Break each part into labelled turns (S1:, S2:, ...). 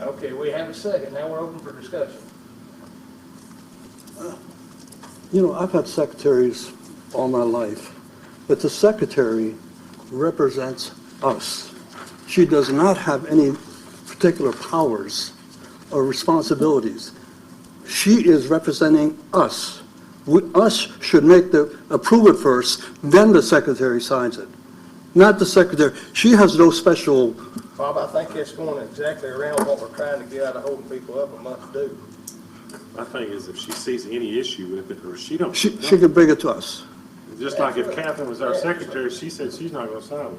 S1: Okay, we have a second, now we're open for discussion.
S2: You know, I've had secretaries all my life, but the secretary represents us. She does not have any particular powers or responsibilities. She is representing us. We- Us should make the, approve it first, then the secretary signs it, not the secretary. She has no special,
S1: Bob, I think that's going exactly around what we're trying to get out of holding people up and must do.
S3: My thing is if she sees any issue with it, or she don't,
S2: she, she can bring it to us.
S3: just like if Catherine was our secretary, she said she's not gonna sign it,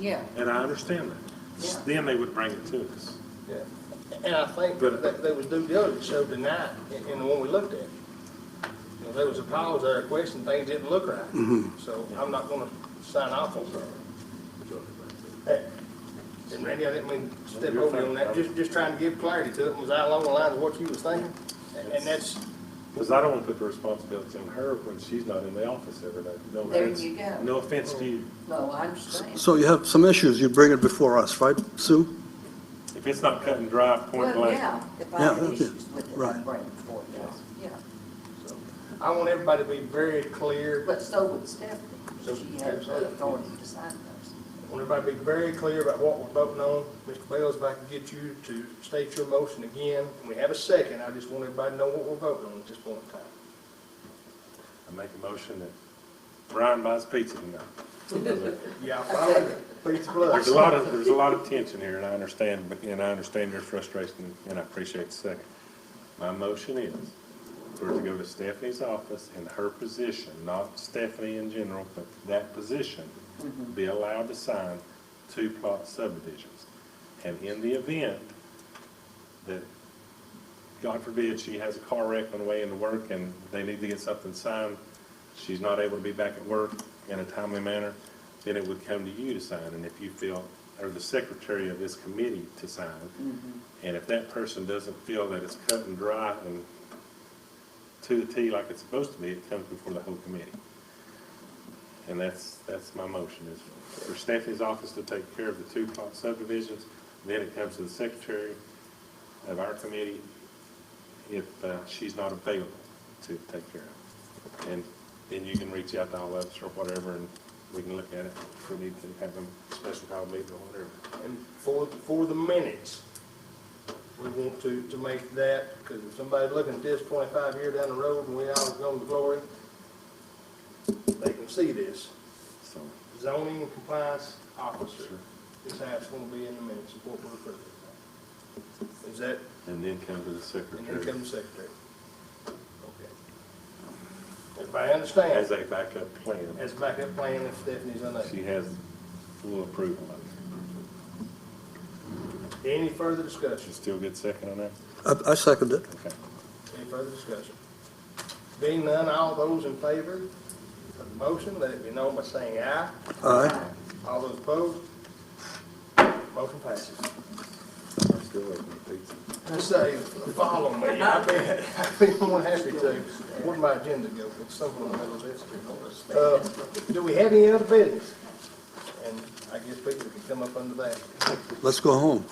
S4: Yeah,
S3: and I understand that. Then they would bring it to us.
S1: Yeah. And I think
S3: But-
S1: that there was due diligence showed tonight in, in the one we looked at. You know, there was a pause there, a question, things didn't look right. So I'm not gonna sign off on that. And Randy, I didn't mean to step over you on that, just, just trying to give clarity to it, was I along the lines of what you was thinking? And- And that's,
S3: Because I don't want to put the responsibility on her when she's not in the office every day. No
S4: There
S3: offense-
S4: you go.
S3: No offense to you.
S4: no, I understand.
S2: So you have some issues, you bring it before us, right, Sue?
S3: If it's not cut and dry, point
S4: Well,
S3: blank.
S4: yeah, if I
S2: Yeah,
S4: had
S2: okay.
S4: issues with it, I'd
S2: Right.
S4: bring it forward, yeah.
S1: I want everybody to be very clear
S4: But so would Stephanie,
S1: So-
S4: she has the authority to sign those.
S1: Want everybody to be very clear about what we're voting on. Mr. Bales, if I can get you to state your motion again, and we have a second, I just want everybody to know what we're voting on at this point in time.
S3: I make a motion that Brian buys pizza tonight.
S1: Yeah, finally, pizza
S3: There's
S1: plus.
S3: a lot of, there's a lot of tension here, and I understand, but- and I understand your frustration, and I appreciate the second. My motion is for it to go to Stephanie's office in her position, not Stephanie in general, but that position, be allowed to sign two plot subdivisions. And in the event that, God forbid, she has a car wreck on the way into work and they need to get something signed, she's not able to be back at work in a timely manner, then it would come to you to sign, and if you feel, or the secretary of this committee to sign. And if that person doesn't feel that it's cut and dry and to the T like it's supposed to be, it comes before the whole committee. And that's, that's my motion, is for Stephanie's office to take care of the two plot subdivisions, then it comes to the secretary of our committee if uh, she's not available to take care of. it. And then you can reach out to all of us or whatever, and we can look at it if we need to have a special call meeting or whatever.
S1: And for, for the minutes, we want to, to make that, because if somebody's looking at this twenty-five year down the road and we all go to glory, they can see this.
S3: So,
S1: Zoning and compliance officer is how it's gonna be in the minutes, of what we're approving. Is that
S3: and then come to
S1: And
S3: the
S1: here
S3: secretary
S1: comes the secretary. Okay. Everybody
S3: as
S1: understands,
S3: a backup plan.
S1: as backup plan if Stephanie's
S3: She
S1: unable.
S3: has full approval of it.
S1: Any further discussion?
S3: She still gets second on that?
S2: I, I second it.
S3: Okay.
S1: Any further discussion? Being none, all those in favor of the motion, let it be known by saying aye.
S2: Aye.
S1: All those opposed? Motion passes.
S3: I'm still waiting for pizza.
S1: I say, follow me, I bet, I'd be more than happy to. Where'd my agenda go? It's somewhere in the middle of this. Uh, Do we have any other business? And I guess people can come up under that.
S2: Let's go home.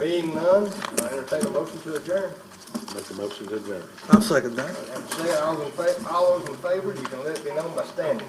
S1: Being none, I entertain a motion to adjourn.
S3: Make a motion to adjourn.
S2: I'll second that.
S1: And say, all in fa, all those in favor, you can let me know by standing.